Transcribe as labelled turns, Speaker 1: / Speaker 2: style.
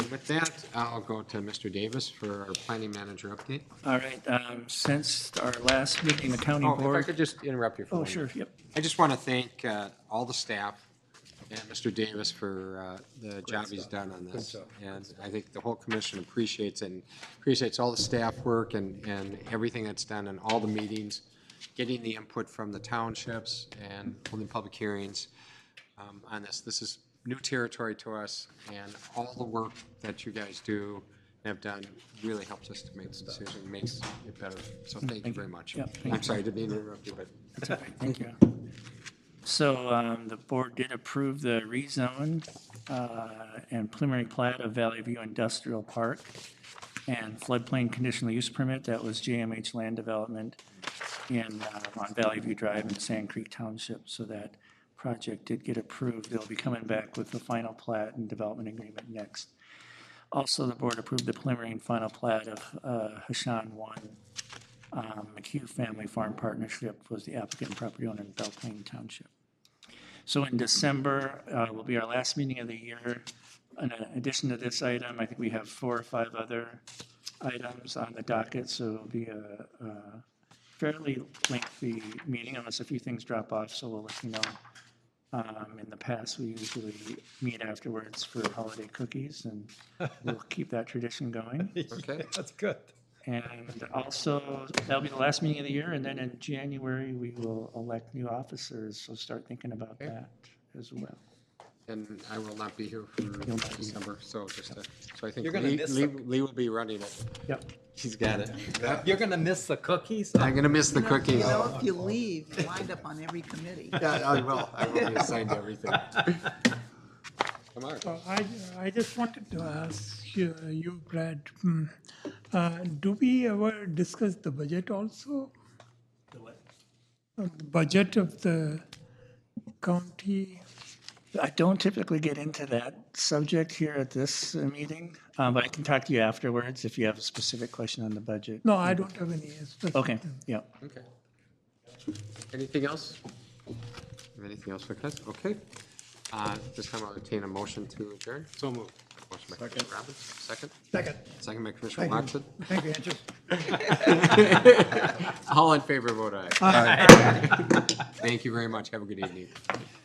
Speaker 1: with that, I'll go to Mr. Davis for our planning manager update.
Speaker 2: All right, um, since our last meeting, the county
Speaker 1: Oh, if I could
Speaker 2: board.
Speaker 1: just interrupt you for
Speaker 2: Oh,
Speaker 1: one minute.
Speaker 2: sure, yep.
Speaker 1: I just want to thank uh, all the staff and Mr. Davis for uh, the job he's done on this. And I think the whole commission appreciates and appreciates all the staff work and, and everything that's done in all the meetings, getting the input from the townships and holding public hearings um, on this. This is new territory to us, and all the work that you guys do and have done really helps us to make the decision, makes it better. So thank you very much.
Speaker 2: Yep, thank
Speaker 1: I'm sorry to be interrupted, but.
Speaker 2: That's all right, Thank you. So um, the board did approve the rezone uh, and preliminary plat of Valley View Industrial Park and floodplain conditional use permit. That was JMH Land Development in, uh, on Valley View Drive in Sand Creek Township. So that project did get approved. They'll be coming back with the final plat and development agreement next. Also, the board approved the preliminary and final plat of uh, Hashan 1 um, McHugh Family Farm Partnership was the applicant and property owner in Belplain Township. So in December uh, will be our last meeting of the year. In addition to this item, I think we have four or five other items on the docket, so it'll be a a fairly lengthy meeting unless a few things drop off, so we'll let you know. Um, In the past, we usually meet afterwards for holiday cookies, and we'll keep that tradition going.
Speaker 1: Okay.
Speaker 3: That's good.
Speaker 2: And also, that'll be the last meeting of the year, and then in January, we will elect new officers, so start thinking about that as well.
Speaker 1: And I will not be here for December, so just, uh, so I think
Speaker 3: You're gonna
Speaker 1: Lee,
Speaker 3: miss
Speaker 1: Lee
Speaker 3: the-
Speaker 1: Lee will be running it.
Speaker 2: Yep.
Speaker 1: He's got it.
Speaker 3: You're gonna miss the cookies.
Speaker 1: I'm gonna miss the
Speaker 4: You know-
Speaker 1: cookies.
Speaker 4: You know,
Speaker 1: Yeah,
Speaker 4: if you leave, you wind up on every committee.
Speaker 1: I will. I will be assigned to everything. Come on.
Speaker 5: So I, I just wanted to ask you, you, Brad, hmm, uh, do we ever discuss the budget also? The what? The budget of the county,
Speaker 2: I don't typically get into that subject here at this uh, meeting, uh, but I can talk to you afterwards if you have a specific question on the budget.
Speaker 5: no, I don't have any. specific-
Speaker 2: Okay, yeah.
Speaker 1: Okay. Anything else? Anything else for Chris? Okay. Uh, This time I'll obtain a motion to adjourn. So moved. Motion by Commissioner Robbins, second.
Speaker 3: Second.
Speaker 1: Second by Commissioner Watson.
Speaker 3: Thank you, Andrew.
Speaker 1: All in favor, vote aye. Thank you very much. Have a good evening.